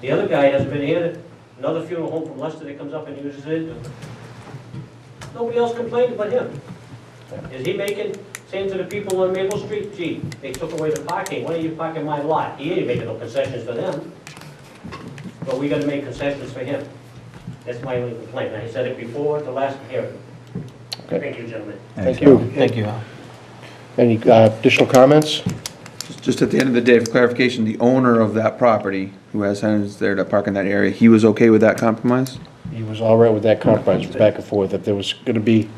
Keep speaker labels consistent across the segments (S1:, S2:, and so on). S1: The other guy hasn't been here, another funeral home from Leicester that comes up and uses it. Nobody else complained but him. Is he making, saying to the people on Maple Street, gee, they took away the parking, why are you parking my lot? He ain't making no concessions for them. But we gotta make concessions for him. That's my only complaint, and I said it before at the last hearing.
S2: Okay.
S1: Thank you, gentlemen.
S2: Thank you.
S3: Thank you, Al.
S2: Any uh, additional comments?
S4: Just at the end of the day, for clarification, the owner of that property, who has tenants there to park in that area, he was okay with that compromise?
S2: He was all right with that compromise, it was back and forth. If there was going to be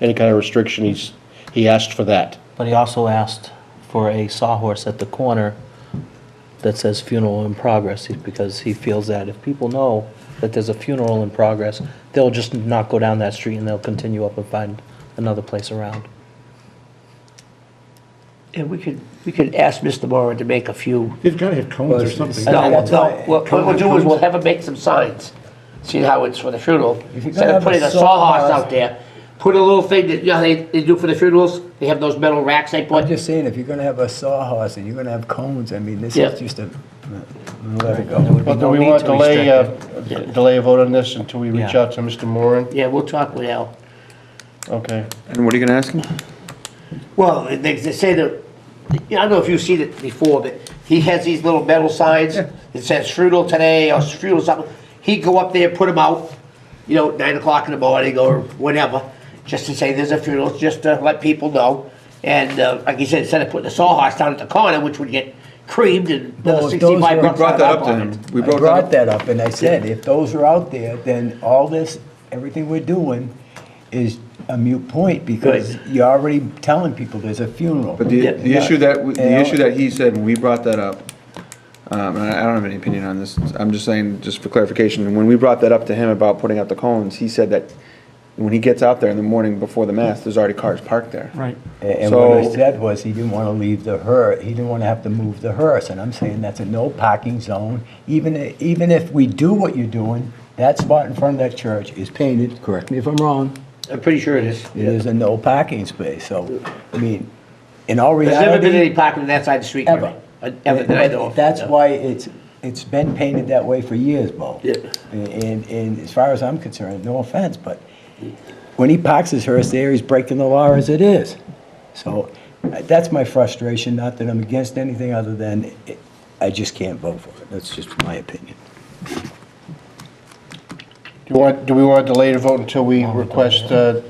S2: any kind of restriction, he's, he asked for that.
S3: But he also asked for a sawhorse at the corner that says funeral in progress, he- because he feels that if people know that there's a funeral in progress, they'll just not go down that street and they'll continue up and find another place around.
S5: And we could, we could ask Mr. Moran to make a few.
S6: They've got to have cones or something.
S5: No,
S3: And that's
S5: no, what what we'll do is we'll have him make some signs, see how it's for the funeral.
S7: If you're
S5: Instead
S7: gonna
S5: of
S7: have
S5: putting
S7: a
S5: a sawhorse
S7: sawhorse-
S5: out there, put a little thing that, you know, how they, they do for the funerals, they have those metal racks they
S7: I'm
S5: put.
S7: just saying, if you're gonna have a sawhorse and you're gonna have cones, I mean, this
S5: Yeah.
S7: is just a, we'll let it
S3: There
S7: go.
S3: would be
S2: But do
S3: no
S2: we
S3: need
S2: want
S3: to
S2: to delay,
S3: restrict it.
S2: uh, delay a vote on this until we reach
S3: Yeah.
S2: out to Mr. Moran?
S5: Yeah, we'll talk with Al.
S2: Okay.
S4: And what are you gonna ask him?
S5: Well, they, they say that, you know, I don't know if you've seen it before, but he has these little metal signs that says Strudel today or Strudel something. He'd go up there, put them out, you know, nine o'clock in the morning or whenever, just to say there's a funeral, just to let people know. And, uh, like you said, instead of putting a sawhorse down at the corner, which would get creamed and
S7: Well,
S5: another
S7: if those
S5: sixty-five
S7: were-
S4: We
S5: bucks.
S4: brought that
S5: on
S4: up to
S5: top
S4: him.
S5: of it.
S4: We
S7: I brought
S4: brought that up.
S7: that up and I said, if those are out there, then all this, everything we're doing is a mute point because
S5: Right.
S7: you're already telling people there's a funeral.
S4: But the,
S5: Yeah.
S4: the issue that, we-
S7: Yeah.
S4: the issue that he said when we brought that up, um, and I I don't have any opinion on this, I'm just saying, just for clarification, when we brought that up to him about putting out the cones, he said that when he gets out there in the morning before the mass, there's already cars parked there.
S3: Right.
S7: And and what I
S4: So-
S7: said was, he didn't want to leave the hearse, he didn't want to have to move the hearse, and I'm saying that's a no parking zone. Even, i- even if we do what you're doing, that spot in front of that church is painted, correct me if I'm wrong,
S5: I'm pretty sure it is.
S7: it is a no parking space, so, I mean, in all
S5: There's never been any
S7: reality,
S5: parking on that side of the street. Gary.
S7: ever.
S5: Uh, Ever that I know of.
S7: That's
S5: No.
S7: why it's, it's been painted that way for years, Bo.
S5: Yeah.
S7: And, and as far as I'm concerned, no offense, but when he parks his hearse there, he's breaking the law as it is. So uh, that's my frustration, not that I'm against anything other than it- I just can't vote for it. That's just my opinion.
S2: Do you want, do we want to delay the vote until we request, uh,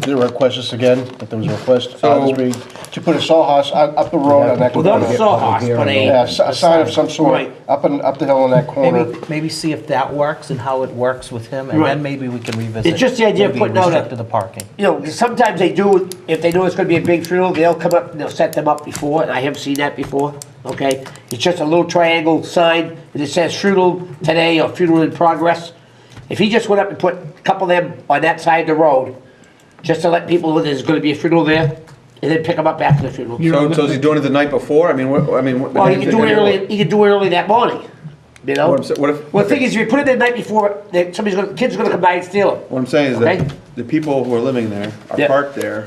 S2: the request this again? That there was a request uh, this
S4: So-
S2: week to put a sawhorse up up the road on that
S5: Well, not
S2: corner.
S5: a sawhorse, but a.
S2: Yeah, s- a sign of some sort,
S5: Right.
S2: up and, up the hill on that corner.
S3: Maybe, maybe see if that works and how it works with him, and
S5: Right.
S3: then maybe we can revisit.
S5: It's just the idea of
S3: maybe
S5: putting out a-
S3: restrict to the parking.
S5: you know, 'cause sometimes they do, if they know it's gonna be a big funeral, they'll come up, and they'll set them up before, and I have seen that before, okay? It's just a little triangle sign, and it says funeral today or funeral in progress. If he just went up and put a couple of them on that side of the road, just to let people know there's gonna be a funeral there, and then pick them up after the funeral.
S4: So, so is he doing it the night before? I mean, what, I mean. what-
S5: Well, he could do it early, he could do it early that morning, you know?
S4: What I'm sa- what if-
S5: Well, the thing is, if you put it the night before, then somebody's gonna, kids are gonna come by and steal it.
S4: What I'm saying is
S5: Okay.
S4: that the people who are living there are
S5: Yeah.
S4: parked there,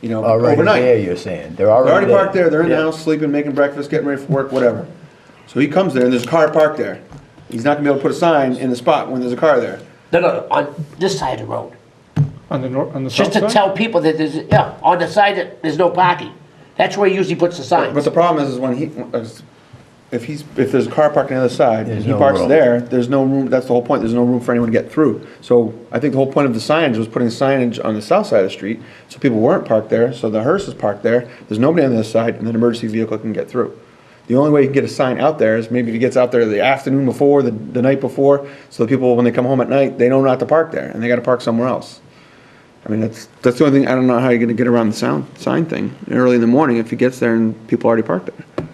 S4: you know,
S7: Already there,
S4: overnight.
S7: you're saying. They're
S4: They're
S7: already
S4: already
S7: there.
S4: parked there, they're in the
S5: Yeah.
S4: house, sleeping, making breakfast, getting ready for work, whatever. So he comes there and there's a car parked there. He's not gonna be able to put a sign in the spot when there's a car there.
S5: No, no, on this side of the road.
S6: On the north, on the
S5: Just
S6: south
S5: to
S6: side?
S5: tell people that there's, yeah, on the side that there's no parking. That's where he usually puts the
S4: But
S5: signs.
S4: the problem is, is when he, uh, if he's, if there's a car parked on the other side, and
S7: There's
S4: he
S7: no
S4: parks
S7: room.
S4: there, there's no room, that's the whole point, there's no room for anyone to get through. So I think the whole point of the signage was putting signage on the south side of the street, so people weren't parked there, so the hearse is parked there, there's nobody on the other side, and an emergency vehicle can get through. The only way you can get a sign out there is maybe if he gets out there the afternoon before, the, the night before, so the people, when they come home at night, they know not to park there, and they gotta park somewhere else. I mean, that's, that's the only thing, I don't know how you're gonna get around the sound, sign thing, early in the morning if he gets there and people already parked there.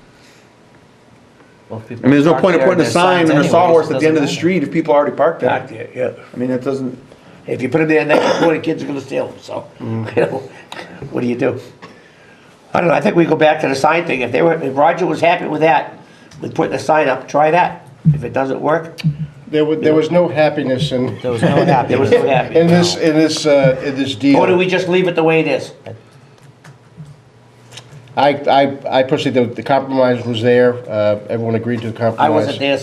S3: Well, if
S4: I mean, there's no
S3: people
S4: point in putting
S3: park there,
S4: a
S3: there's
S4: sign
S3: signs
S4: and a
S3: anyways,
S4: sawhorse
S3: it
S4: at the end of the
S3: doesn't matter.
S4: street if people already parked
S5: Back
S4: there.
S5: there, yeah.
S4: I mean, that doesn't,
S5: If you put him there at night before, the kids are gonna steal them, so, you know, what do you do? I don't know, I think we go back to the sign thing. If they were, if Roger was happy with that, with putting the sign up, try that. If it doesn't work,
S2: There was, there was no happiness in,
S3: There was no
S5: there was no happy.
S2: in this, in this, uh, in this deal.
S5: Or do we just leave it the way it is?
S2: I, I, I personally, the, the compromise was there, uh, everyone agreed to the compromise.
S5: I wasn't there,